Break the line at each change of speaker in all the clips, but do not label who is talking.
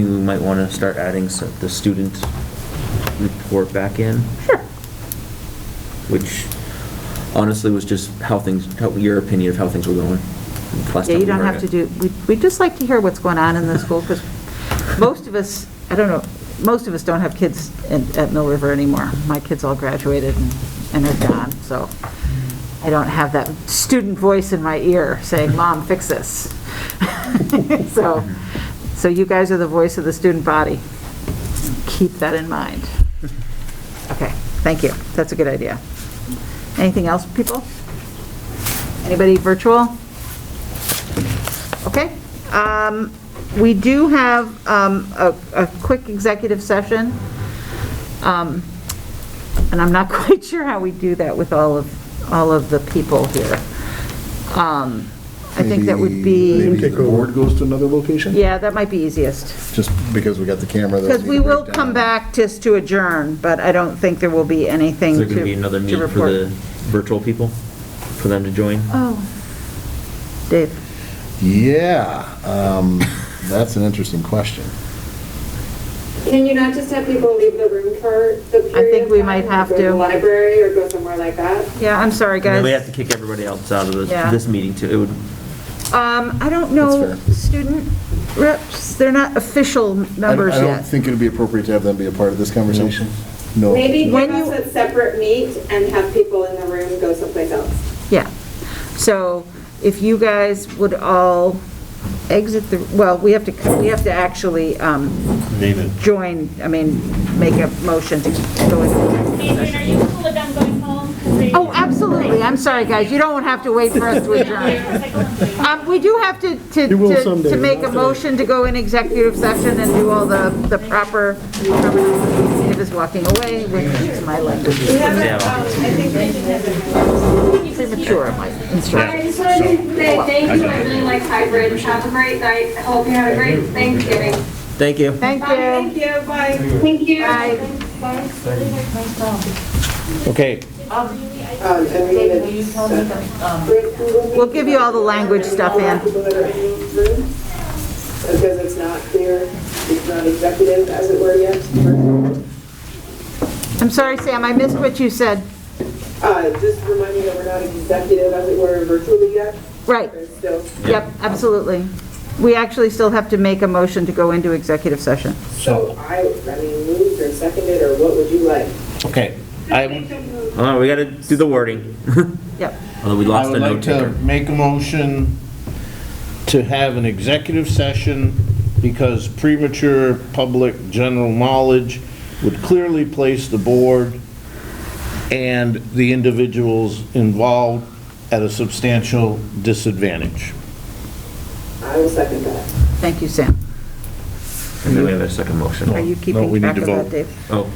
You might want to start adding some- the student report back in,
Sure.
which honestly was just how things, how- your opinion of how things were going. last time
Yeah, you
we
don't
were
have to
here.
do, we- we'd just like to hear what's going on in the school, because most of us, I don't know, most of us don't have kids in- at Mill River anymore. My kids all graduated and- and are gone, so I don't have that student voice in my ear saying, "Mom, fix this." So, so you guys are the voice of the student body. Keep that in mind. Okay, thank you. That's a good idea. Anything else, people? Anybody virtual? Okay. Um, We do have um, a a quick executive session, Um, and I'm not quite sure how we do that with all of, all of the people here. Um, I think that would
Maybe
be,
the board goes to another location?
yeah, that might be easiest.
Just because we got the camera. that'll
Because
need
we
to
will
break
come
down.
back just to adjourn, but I don't think there will be anything
Is
to
there
to report.
going to be another meeting for the virtual people, for them to join?
Oh, Dave,
Yeah, um, that's an interesting question.
Can you not just have people leave the room for the period?
think
of
we
time,
might
like
have
Go to
to.
the library or go somewhere like that?
yeah, I'm sorry,
And then we
guys.
have to kick everybody else out of this-
Yeah.
this meeting too. It would,
Um, I don't know,
That's fair.
student reps, they're not official
I don't-
numbers
I don't
yet.
think it'd be appropriate to have them be a part of this conversation. No.
Maybe give
When
us
you-
a separate meet and have people in the room go someplace else.
Yeah. So if you guys would all exit the, well, we have to, we have to actually um,
Name it.
join, I mean, make a motion to go into.
Adrian, are you cool with them going home? 'Cause they-
Oh, absolutely, I'm sorry, guys, you don't have to wait for us to adjourn.
oh,
Um, we do have to, to, to to make a motion to go in executive session and do all the, the proper, Dave is walking away, which is my language,
um,
yeah.
premature, my instruction.
I just wanted to say thank you, I really like hybrid, have a great night, I hope you had a great Thanksgiving.
Thank you.
Thank you.
you, bye.
Thank you.
Bye.
Okay.
Um,
um,
We'll give you all the language stuff in.
people that are in the room, because it's not clear, it's not executive as it were yet.
I'm sorry, Sam, I missed what you said.
Uh, Just remind me that we're not executive as it were virtually yet,
Right,
there's still.
yep, absolutely. We actually still have to make a motion to go into executive session.
So I, I mean, moved or seconded, or what would you like?
Okay. I
Hold on, we got to do the wording.
Yep,
Although we
I
lost a
would like
note
to
taker.
make a motion to have an executive session because premature public general knowledge would clearly place the board and the individuals involved at a substantial disadvantage.
I will second that.
thank you, Sam.
And then we have a second motion.
Are you
No,
keeping
we need
track
to
of that,
vote.
Dave?
Oh,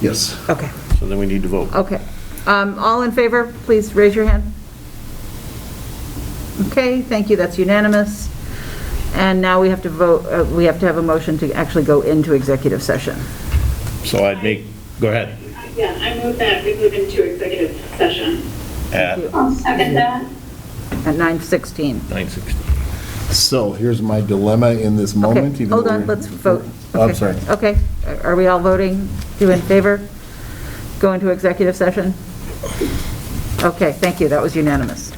Yes.
Okay,
So then we need to vote.
okay. Um, all in favor, please raise your hand. Okay, thank you, that's unanimous. And now we have to vote, uh, we have to have a motion to actually go into executive session.
So I'd make, go ahead.
Yeah, I move that we move into executive session.
At
I'll second that.
at 9:16.
9:16.
So here's my dilemma in this moment.
Okay,
even
hold
though
on,
we're-
let's vote.
Oh, I'm
Okay,
sorry.
Okay, are we all voting? You in favor? Go into executive session? Okay, thank you, that was unanimous.